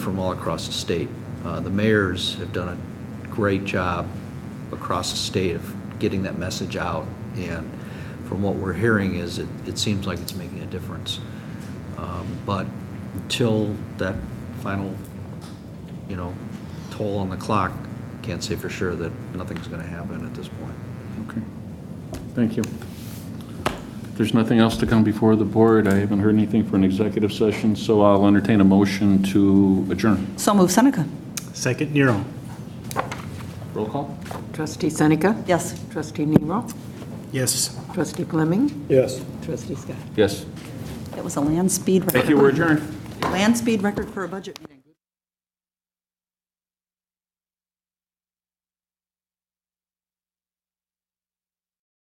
from all across the state. Uh, The mayors have done a great job across the state of getting that message out, and from what we're hearing is, it, it seems like it's making a difference. Um, But until that final, you know, toll on the clock, can't say for sure that nothing's going to happen at this point. Okay, thank you. If there's nothing else to come before the board, I haven't heard anything for an executive session, so I'll entertain a motion to adjourn. So move Seneca. Second, Nero. Roll call? Trustee Seneca? Yes. Trustee Nero? Yes. Trustee Fleming? Yes. Trustee Scott? Yes. That was a land speed record. Thank you, we're adjourned. Land speed record for a budget meeting.